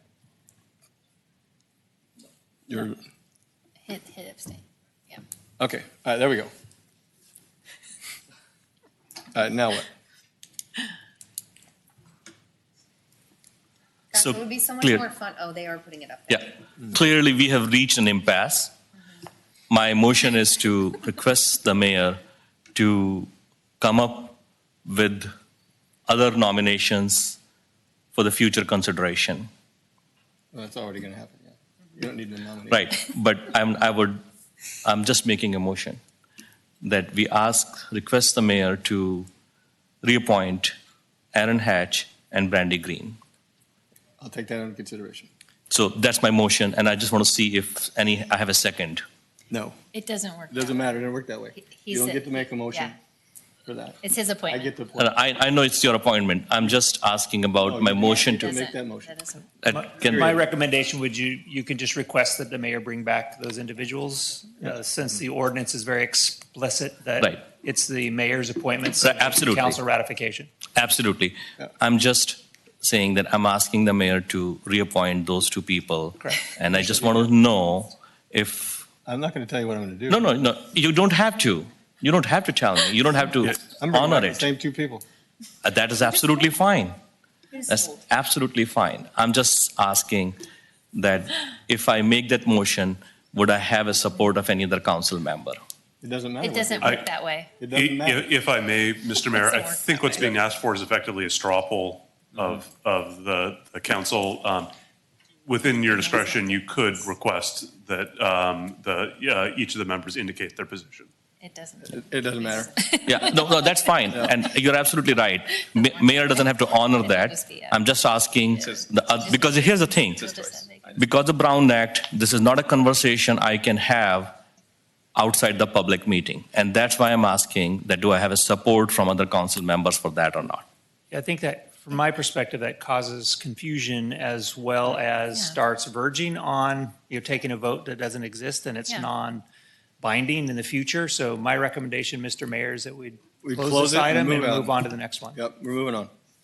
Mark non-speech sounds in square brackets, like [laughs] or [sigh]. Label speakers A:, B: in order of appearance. A: You're,
B: Hit, hit abstain.
A: okay, all right, there we go. All right, Uh, now what?
B: Gosh,
C: So,
B: it would be so much
C: clear.
B: more fun. Oh, they are putting it up. there.
C: Yeah, clearly we have reached an impasse. My motion is to request the mayor to come up with other nominations for the future consideration.
A: Well, That's already going to happen, yeah. You don't need to nominate.
C: Right, but I'm, I would, I'm just making a motion that we ask, request the mayor to reappoint Aaron Hatch and Brandy Green.
A: I'll take that under consideration.
C: So that's my motion, and I just want to see if any, I have a second.
A: No,
B: It doesn't work.
A: it doesn't matter, it didn't work that way.
B: He- he
A: You don't
B: said-
A: get to make a motion
B: yeah.
A: for that.
B: It's his
A: I
B: appointment.
A: get the point.
C: And I, I know it's your appointment. I'm just asking
A: No,
C: about my
A: you-
C: motion
A: you
C: to.
A: Make
B: Doesn't-
A: that motion.
B: doesn't-
C: uh, can-
D: My recommendation would you, you can just request that the mayor bring back those individuals, uh, since the ordinance is very explicit
C: Right.
D: that it's the mayor's appointment.
C: Right, absolutely.
D: Council ratification.
C: Absolutely.
A: Yeah.
C: I'm just saying that I'm asking the mayor to reappoint those two people.
D: Correct.
C: And I just want to know if,
A: I'm not going to tell you what I'm going to do.
C: no, no, no, you don't have to. You don't have to tell me. You don't have to
A: I'm bringing back
C: honor
A: the
C: it.
A: same two people.
C: Uh, That is absolutely fine. That's
B: Sold.
C: absolutely fine. I'm just asking that if I make that motion, would I have a support of any other council member?
A: It doesn't matter.
B: It
A: what they
B: doesn't
A: do.
B: work that way.
A: It doesn't matter.
E: If if I may, Mr. Mayor, I think what's being asked for is effectively a straw poll of, of the, the council. Um, Within your discretion, you could request that um, the, uh, each of the members indicate their position.
B: It doesn't.
A: It doesn't matter.
B: [laughs]
C: Yeah, no, no, that's fine, and you're absolutely right. Ma- Mayor doesn't have to honor that. I'm just asking, the oth- because here's the thing. Because the Brown Act, this is not a conversation I can have outside the public meeting. And that's why I'm asking that do I have a support from other council members for that or not?
D: I think that, from my perspective, that causes confusion as well as starts verging on, you're taking a vote that doesn't exist and it's
B: Yeah.
D: non-binding in the future. So my recommendation, Mr. Mayor, is that we
A: We close
D: close
A: it
D: this
A: and
D: item and
A: move on.
D: move on to the next one.
A: Yep, we're moving on.